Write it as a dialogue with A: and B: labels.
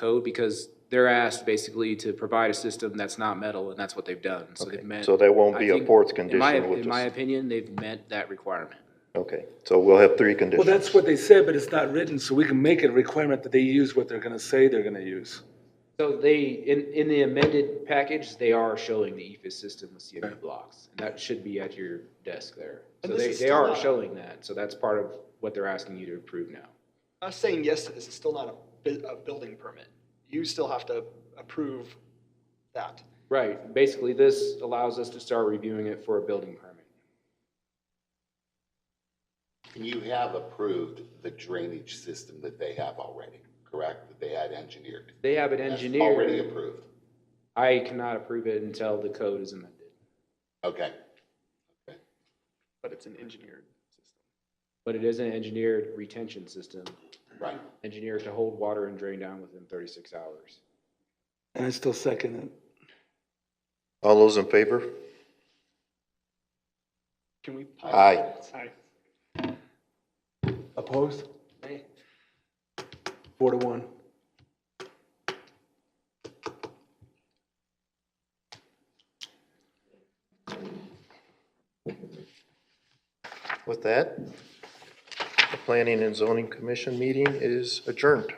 A: code because they're asked basically to provide a system that's not metal, and that's what they've done. So they've met.
B: So there won't
A: I
B: be a
A: think-
B: fourth
A: In my,
B: condition with
A: in my
B: this?
A: opinion, they've met that requirement.
B: Okay, so we'll have three
C: Well,
B: conditions.
C: that's what they said, but it's not written, so we can make it a requirement that they use what they're gonna say they're gonna use.
A: So they, in, in the amended package, they are showing the E EFS system with CMU blocks. And that should be at your desk there.
D: And
A: So
D: this
A: they,
D: is
A: they
D: still
A: are
D: not-
A: showing that. So that's part of what they're asking you to approve now.
D: Us saying yes to this is still not a, bu- a building permit. You still have to approve that.
A: Right, basically this allows us to start reviewing it for a building permit.
E: And you have approved the drainage system that they have already, correct? That they had engineered?
A: They have it
E: That's Already
A: engineered,
E: approved.
A: I cannot approve it until the code is amended.
E: Okay.
D: But it's an engineered system.
A: But it is an engineered retention system,
E: Right.
A: engineered to hold water and drain down within thirty-six hours.
C: And I still second it.
B: All those in favor?
D: Can we?
B: Aye.
D: Aye.
C: Opposed? Four to one.
B: With that, the Planning and Zoning Commission meeting is adjourned.